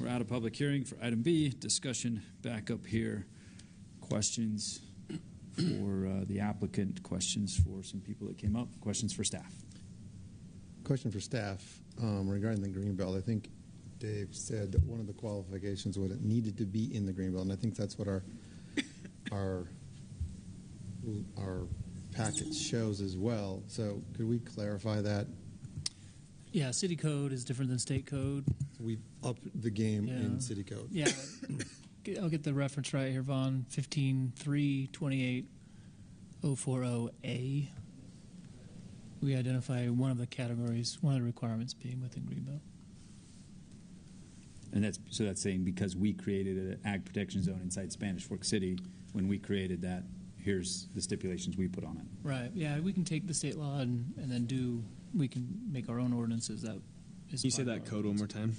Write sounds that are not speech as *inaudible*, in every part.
We're out of public hearing for item B. Discussion back up here. Questions for uh, the applicant, questions for some people that came up, questions for staff. Question for staff um, regarding the green belt. I think Dave said that one of the qualifications was it needed to be in the green belt, and I think that's what *coughs* our our our packet shows as well. So could we clarify that? Yeah, city code is different than state code. We've upped the game Yeah. in city code. *coughs* Yeah, Get- I'll get the reference right here, Vaughn. Fifteen three twenty eight oh four oh A. We identify one of the categories, one of the requirements being within Greenbelt. And that's so that's saying because we created an ag protection zone inside Spanish Fork City, when we created that, here's the stipulations we put on it. Right. Yeah, we can take the state law and, and then do. We can make our own ordinances. That is. Can you say part that of our code one more time?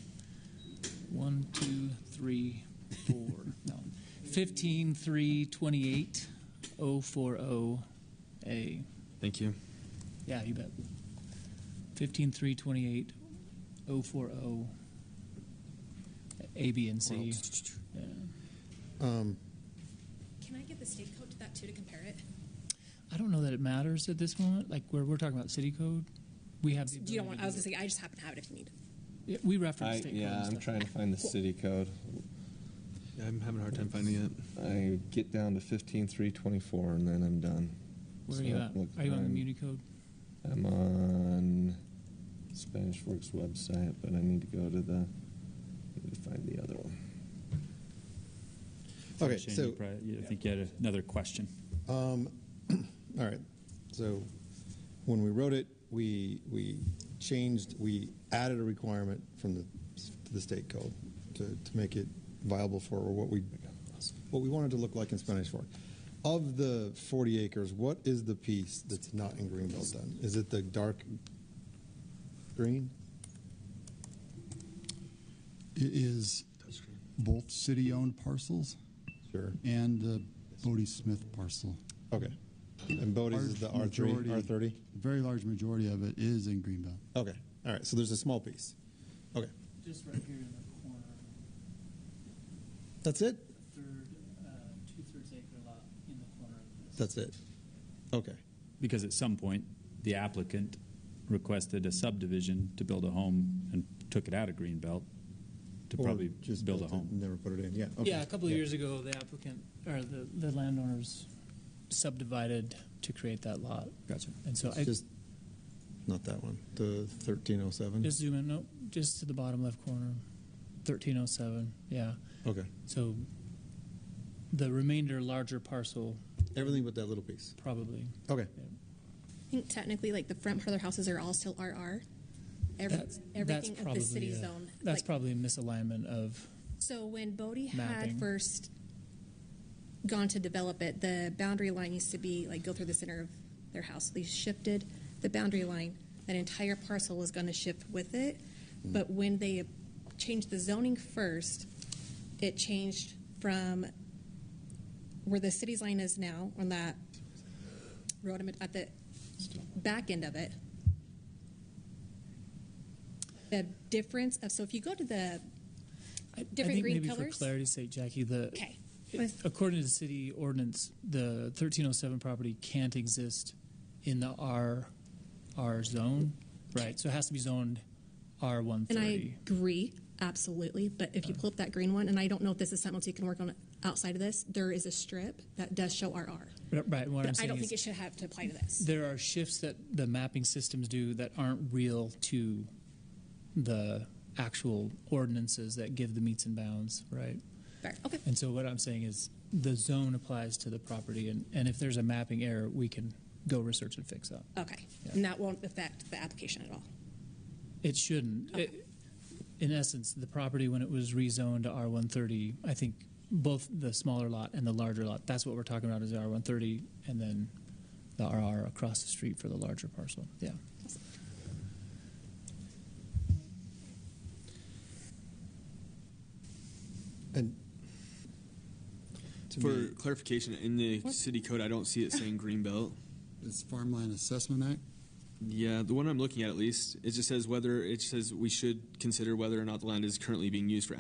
One, two, three, four. no. 15 3 28 040 A. Thank you. Yeah, you bet. 15 3 28 040 A, B, and C. Yeah. Um, Can I get the state code to that too to compare it? I don't know that it matters at this moment. Like, where we're talking about city code, we have. The Do you don't ability want? to I was gonna do say I just happen to have it if you need. it. Yeah, we reference I, state code. yeah, and I'm stuff. trying to find the city code. Yeah, I'm having a hard time finding it. I get down to fifteen three twenty four, and then I'm done. Where are So you I'm at? looking- Are you on the I'm- Muni code? I'm on Spanish Works website, but I need to go to the. I need to find the other one. okay, Shane, so you probably- you- I think you had another question. Um, *clears throat* all right. So when we wrote it, we we changed, we added a requirement from the to the state code to, to make it viable for what we what we wanted to look like in Spanish Fork. Of the 40 acres, what is the piece that's not in Greenbelt then? Is it the dark green? It is both city-owned parcels Sure. and the Bodie Smith parcel. Okay. And Bodie's is the Large R3, majority- R30? Very large majority of it is in Greenbelt. Okay. All right. So there's a small piece. Okay. Just right here in the corner. That's it? third, uh, two-thirds acre lot in the corner of this. That's it. Okay. Because at some point, the applicant requested a subdivision to build a home and took it out of Greenbelt to Or probably build a built it and home. Never put it in. Yeah. Yeah, a couple of years ago, the applicant, or the, the landowners subdivided to create that lot. Gotcha. And so It's I, just not that one. The thirteen oh seven. just zoom in, no, just to the bottom left corner, thirteen oh seven, yeah. Okay. So the remainder larger parcel, Everything but that little piece. probably. Okay. I think technically, like the front part of their houses are all still RR. Every, That's- that's everything of probably the city a- zone. That's like, probably a misalignment of, So when Bodie Mapping. had first gone to develop it, the boundary line used to be like go through the center of their house. They shifted the boundary line. That entire parcel was going to shift with it. But when they changed the zoning first, it changed from where the city's line is now on that road at the back end of it. The difference of so if you go to the I I Different think green maybe for pillars? clarity's sake, Jackie, the. okay, It- According to the city ordinance, the 1307 property can't exist in the R, R zone, right? So it has to be zoned And R130. I agree, absolutely. But if you pull up that green one, and I don't know if this is something else you can work on outside of this, there is a strip that does show RR. R- Right, and what I'm But I saying don't think it is, should have to apply to this. there are shifts that the mapping systems do that aren't real to the actual ordinances that give the meets and bounds, right? Fair. Okay. And so what I'm saying is, the zone applies to the property, and, and if there's a mapping error, we can go research and fix that. Okay. And that won't affect the application at all. It shouldn't. It, in essence, the property when it was rezoned to R130, I think both the smaller lot and the larger lot, that's what we're talking about is the R130 and then the RR across the street for the larger parcel. Yeah. And to For me, clarification, in the city code, I don't see it saying Greenbelt. It's Farmland Assessment Act. Yeah, the one I'm looking at, at least, it just says whether it says we should consider whether or not the land is currently being used for